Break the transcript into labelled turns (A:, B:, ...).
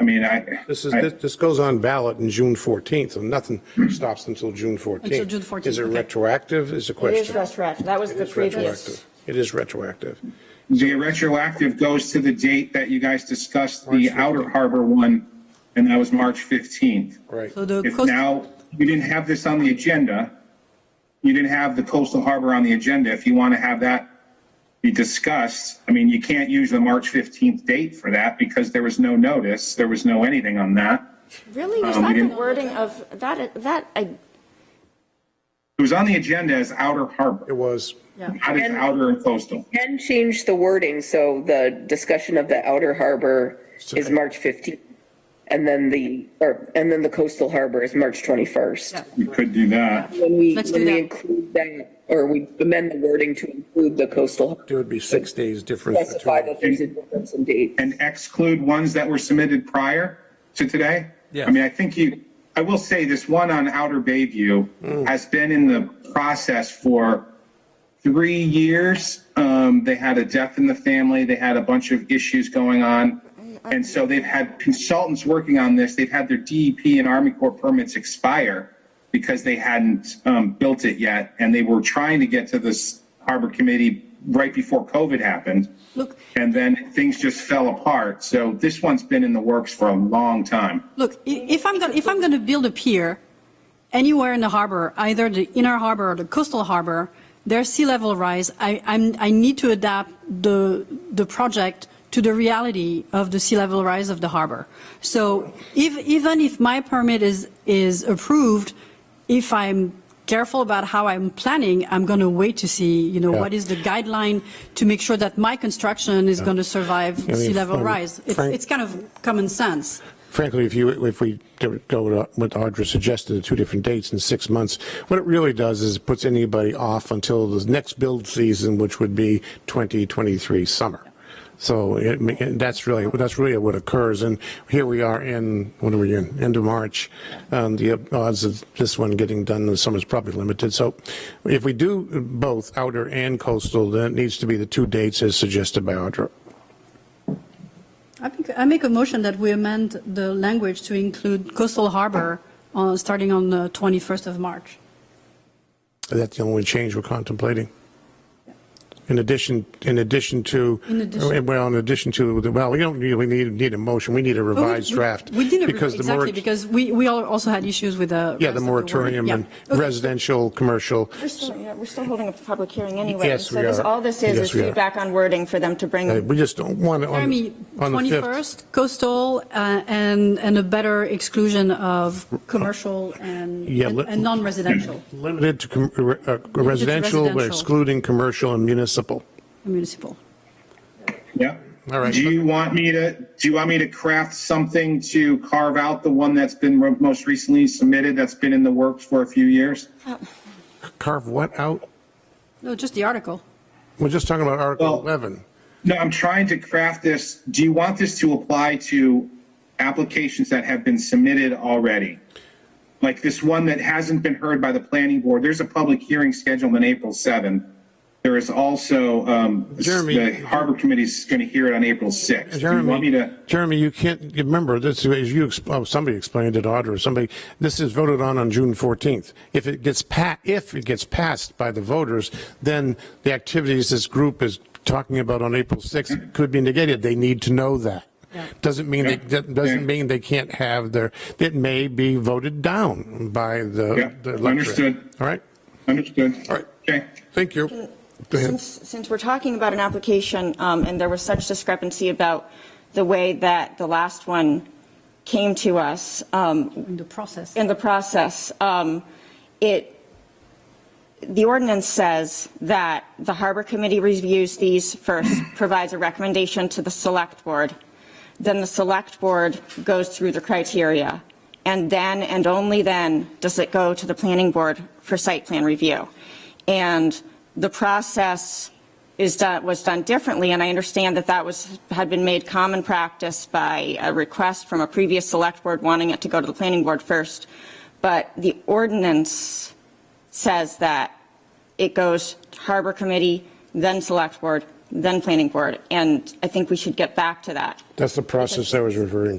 A: mean, I.
B: This is,
A: I-
B: this- this goes on ballot in June 14th, and nothing stops until June 14th.
C: Until June 14th,
B: Is it
C: okay.
B: retroactive, is the
D: It
B: question?
D: is retroactive. That was
B: It
D: the
B: is
D: previous.
B: retroactive. It is retroactive.
A: The retroactive goes to the date that you guys discussed
B: March
A: the
B: 15th.
A: Outer Harbor one, and that was March 15th.
B: Right.
C: So the
A: If
C: coast-
A: now, you didn't have this on the agenda, you didn't have the coastal harbor on the agenda, if you want to have that be discussed, I mean, you can't use the March 15th date for that because there was no notice, there was no anything on that.
D: Really? Was
A: Um, we
D: that the
A: didn't-
D: wording of, that, that, I,
A: It was on the agenda as Outer Harbor,
B: It was,
A: not as Outer and Coastal.
E: Ken changed the wording, so the discussion of the outer harbor is March 15th. And then the, or, and then the coastal harbor is March 21st.
A: We could do that.
E: When we,
C: Let's do
E: when we
C: that.
E: include that, or we amend the wording to include the coastal, harbor,
B: there would be six days difference
E: specify
B: between.
E: that there's a difference in date.
A: and exclude ones that were submitted prior to today?
F: Yes.
A: I mean, I think you, I will say this one on Outer Bayview has been in the process for three years. Um, they had a death in the family. They had a bunch of issues going on. And so they've had consultants working on this. They've had their DEP and Army Corps permits expire because they hadn't, um, built it yet. And they were trying to get to this harbor committee right before COVID happened.
C: Look,
A: And then things just fell apart. So this one's been in the works for a long time.
C: look, i- if I'm going, if I'm going to build a pier anywhere in the harbor, either the inner harbor or the coastal harbor, there's sea level rise. I, I'm, I need to adapt the, the project to the reality of the sea level rise of the harbor. So if, even if my permit is, is approved, if I'm careful about how I'm planning, I'm going to wait to see, you know,
B: Yeah.
C: what is the guideline to make sure that my construction is going to survive
B: I mean,
C: sea level
B: Frank-
C: rise. It's,
B: Frank-
C: it's kind of common sense.
B: Frankly, if you, if we do- go with what Audra suggested, the two different dates in six months, what it really does is it puts anybody off until the next build season, which would be 2023 summer. So it, ma- and that's really, that's really what occurs. And here we are in, what are we in, end of March. Um, The odds of this one getting done in the summer is probably limited. So if we do both outer and coastal, then it needs to be the two dates as suggested by Audra.
C: I think, I make a motion that we amend the language to include coastal harbor, uh, starting on the 21st of March.
B: That's the only change we're contemplating. In addition, in addition to, uh,
C: In addition-
B: well, in addition to, the- well, we don't really need, need a motion, we need a
C: But we-
B: revised
C: we-
B: draft.
C: We didn't,
B: because the
C: exactly,
B: morat-
C: because we, we all also had issues with the.
B: Yeah,
C: rest
B: the
C: of wording.
B: moratorium
C: Yeah.
B: and
C: Okay.
B: residential, commercial,
D: we're still, yeah, we're still holding a public hearing anyway.
B: Yes,
D: So
B: we
D: this-
B: are.
D: all this is,
B: Yes,
D: is
B: we are.
D: feedback on wording for them to
B: Uh,
D: bring.
B: we just don't want it on,
C: Jeremy,
B: on the 5th.
C: 21st, coastal, uh, and, and a better exclusion of commercial and,
B: Yeah,
C: and
B: let-
C: and non-residential
B: Limited to com- uh, uh, residential, but
C: residential.
B: excluding commercial and municipal.
C: municipal.
A: Yeah.
B: All right.
A: Do you want me to, do you want me to craft something to carve out the one that's been re- most recently submitted, that's been in the works for a few years?
B: Carve what out?
C: No, just the article.
B: We're just talking about Article
A: Well-
B: 11.
A: No, I'm trying to craft this. Do you want this to apply to applications that have been submitted already? Like this one that hasn't been heard by the planning board? There's a public hearing scheduled on April 7th. There is also, um,
B: Jeremy-
A: the harbor committee's going to hear it on April 6th. Do you want me
B: Jeremy,
A: to?
B: Jeremy, you can't, remember, this, as you, exp- oh, somebody explained it, Audra, or somebody, this is voted on on June 14th. If it gets pa, if it gets passed by the voters, then the activities this group is talking about on April 6th could be negated. They need to know that. Doesn't mean, they- that doesn't
A: Mm-hmm. Yeah.
B: mean they can't have their, it may be voted down by
A: Yeah,
B: the the electorate.
A: understood.
B: All right?
A: Understood.
B: All right.
A: Okay.
B: Thank you. Go ahead.
D: Since, since we're talking about an application, um, and there was such discrepancy about the way that the last one came to us, um,
C: In the process.
D: in the process, um, it, the ordinance says that the harbor committee reviews these first, provides a recommendation to the select board. Then the select board goes through the criteria. And then, and only then, does it go to the planning board for site plan review. And the process is done, was done differently, and I understand that that was, had been made common practice by a request from a previous select board wanting it to go to the planning board first. But the ordinance says that it goes harbor committee, then select board, then planning board, and I think we should get back to that.
B: That's the process I was referring to.